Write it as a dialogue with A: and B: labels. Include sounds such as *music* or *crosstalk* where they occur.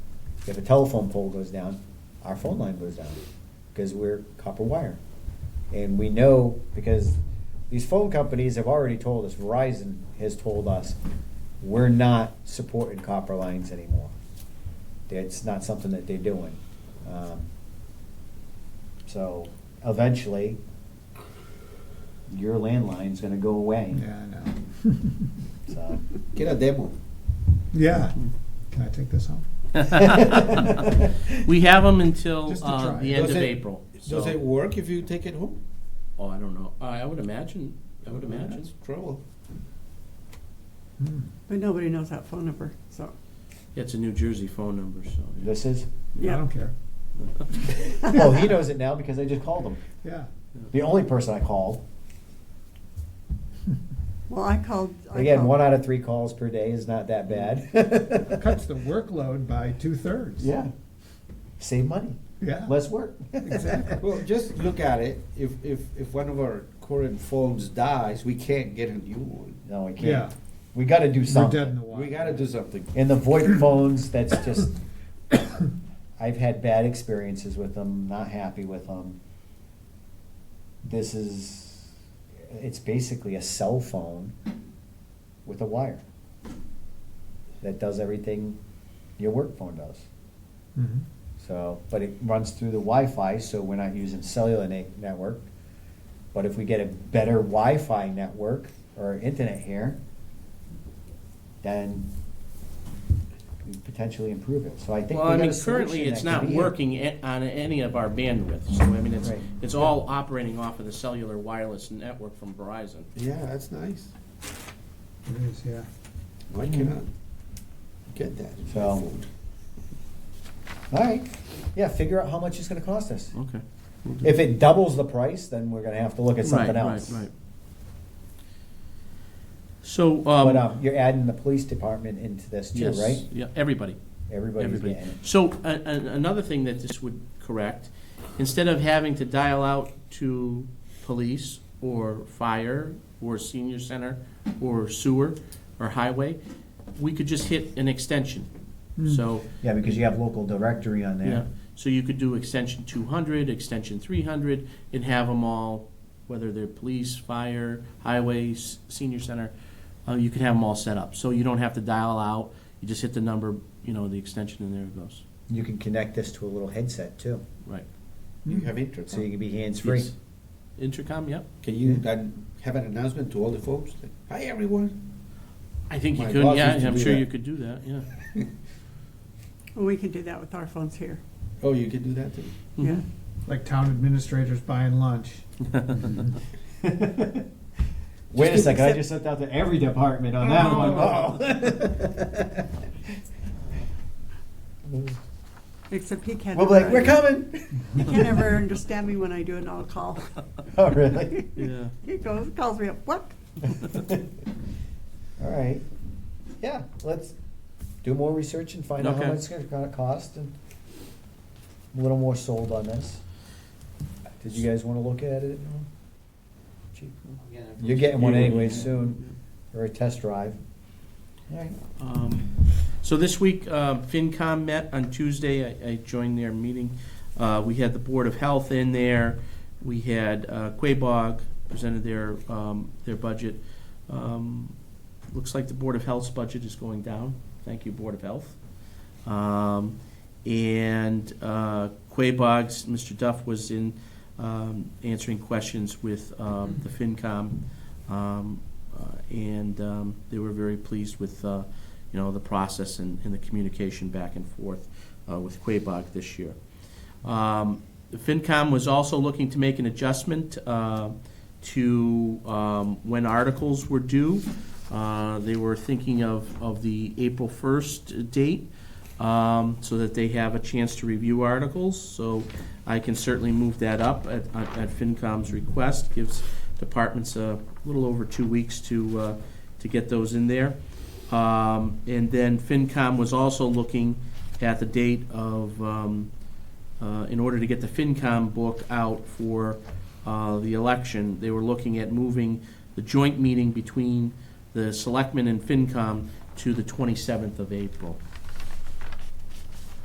A: If a telephone pole goes down, our phone line goes down because we're copper wire. And we know because these phone companies have already told us, Verizon has told us, we're not supporting copper lines anymore. It's not something that they're doing. Um, So eventually, your landline's gonna go away.
B: Yeah, I know.
A: So,
C: Get a demo.
B: Yeah. Can I take this home?
D: *laughs* We have them until
B: Just to
D: uh,
B: try.
D: the end
C: Does
D: of
C: it-
D: April.
C: Does it
D: So,
C: work if you take it home?
D: oh, I don't know. I I would imagine, I would imagine.
C: That's trouble.
B: Hmm.
E: But nobody knows that phone number, so.
D: It's a New Jersey phone number, so. yeah.
A: this is,
B: I
E: Yeah.
B: don't care.
A: oh, he knows it now because I just called him.
B: Yeah.
A: The only person I called.
E: Well, I called. I
A: Again,
E: called-
A: one out of three calls per day is not that bad.
B: Cuts the workload by two thirds.
A: *laughs* Yeah. Save money,
B: Yeah.
A: less work.
B: Exactly.
C: *laughs* Well, just look at it. If, if, if one of our current phones dies, we can't get a new one.
A: *laughs* No, we
B: Yeah.
A: can't. We gotta do
B: We're dead in
A: something.
B: the water.
C: We gotta do something.
A: And the
B: *coughs*
A: VoIP phones, that's just, I've had bad experiences with them, not happy with them. This is, it's basically a cell phone with a wire that does everything your work phone does.
B: Mhm.
A: So, but it runs through the Wi-Fi, so we're not using cellular ne- network. But if we get a better Wi-Fi network or internet here, then we potentially improve it. So I think
D: Well,
A: we
D: I
A: got
D: mean,
A: a solution
D: currently, it's
A: that could
D: not
A: be it.
D: working a- on any of our bandwidth, so I mean, it's,
A: Right.
D: it's all operating off of the cellular wireless network from Verizon.
C: Yeah, that's nice. Mm-hmm.
B: It is, yeah.
C: Why can I get that? in my
A: So-
C: phone?
A: All right, yeah. Figure out how much it's going to cost us.
D: Okay.
A: If it doubles the price, then we're going to have to look at something
D: Right,
A: else.
D: Right, right. So, um.
A: But um, you're adding the police department into this too,
D: yes,
A: right?
D: Yeah, everybody.
A: Everybody's
D: everybody.
A: getting it.
D: So, a- a- another thing that this would correct, instead of having to dial out to police or fire or senior center or sewer or highway, we could just hit an extension. So,
A: Yeah, because you have local directory on there.
D: yeah, so you could do extension two hundred, extension three hundred, and have them all, whether they're police, fire, highways, senior center, uh, you could have them all set up. So you don't have to dial out, you just hit the number, you know, the extension, and there it goes.
A: You can connect this to a little headset too,
D: Right.
C: You have internet.
A: so you can be hands free.
D: Yes. Intercom, yep.
C: Mm-hmm. Can you then have an announcement to all the folks? Like, Hi, everyone.
D: I think you
C: My
D: could,
C: boss
D: yeah,
C: used to
D: I'm
C: do
D: sure
C: that.
D: you could do that, yeah.
E: Well, We can do that with our phones here,
C: Oh, you can do that too?
E: yeah.
D: Mhm.
B: Like town administrators buying lunch.
A: Wait a second, I just sent out to every department on
D: Oh.
A: that one.
E: Except *laughs* he can't.
A: We'll be
E: ever-
A: like, we're coming.
E: He can't ever understand me when I do an all call.
A: *laughs*
E: *laughs*
A: Oh, *laughs* really?
D: Yeah.
E: He goes, calls me up, what?
A: All right. Yeah, let's do more research and find out how
D: Okay.
A: much it's gonna cost and I'm a little more sold on this. Did you guys wanna look at it? Cheap. You're getting one anyway soon, or a test drive. All right.
D: Um, So this week, uh, FinCom met on Tuesday. I- I joined their meeting. Uh, We had the Board of Health in there. We had uh, Quabog presented their, um, their budget. Um, Looks like the Board of Health's budget is going down. Thank you, Board of Health. Um, And uh, Quabog's, Mr. Duff was in um, answering questions with um, the FinCom. um, uh, And um, they were very pleased with uh, you know, the process and, and the communication back and forth uh, with Quabog this year. Um, FinCom was also looking to make an adjustment uh, to um, when articles were due. Uh, They were thinking of, of the April 1st date, um, so that they have a chance to review articles. So I can certainly move that up at, at at FinCom's request, gives departments a little over two weeks to, uh, to get those in there. Um, And then FinCom was also looking at the date of, um, uh, in order to get the FinCom book out for uh, the election, they were looking at moving the joint meeting between the Selectmen and FinCom to the 27th of April.